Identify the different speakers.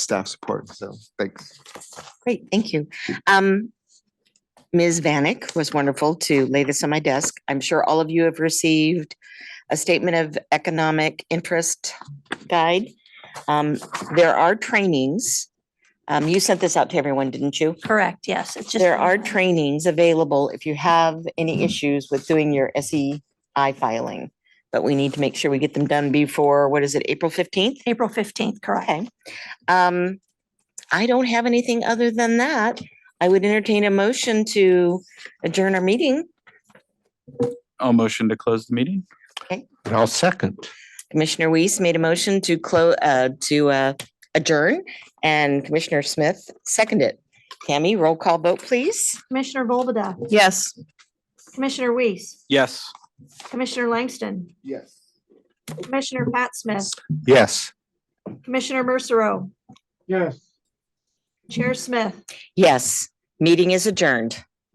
Speaker 1: staff support. So thanks.
Speaker 2: Great, thank you. Um, Ms. Vanek was wonderful to lay this on my desk. I'm sure all of you have received a statement of economic interest guide. Um, there are trainings. Um, you sent this out to everyone, didn't you?
Speaker 3: Correct, yes, it's just.
Speaker 2: There
Speaker 3: one
Speaker 2: are
Speaker 3: time.
Speaker 2: trainings available if you have any issues with doing your SEI filing. But we need to make sure we get them done before, what is it, April fifteenth?
Speaker 3: April fifteenth, correct.
Speaker 2: Okay. Um, I don't have anything other than that. I would entertain a motion to adjourn our meeting.
Speaker 4: I'll motion to close the meeting.
Speaker 5: And I'll second.
Speaker 2: Commissioner Weiss made a motion to close, uh, to, uh, adjourn and Commissioner Smith seconded. Tammy, roll call vote, please.
Speaker 6: Commissioner Volbada,
Speaker 7: Yes.
Speaker 6: Commissioner Weiss,
Speaker 4: Yes.
Speaker 6: Commissioner Langston,
Speaker 1: Yes.
Speaker 6: Commissioner Pat Smith,
Speaker 5: Yes.
Speaker 6: Commissioner Mercero,
Speaker 1: Yes.
Speaker 6: Chair Smith.
Speaker 2: Yes, meeting is adjourned.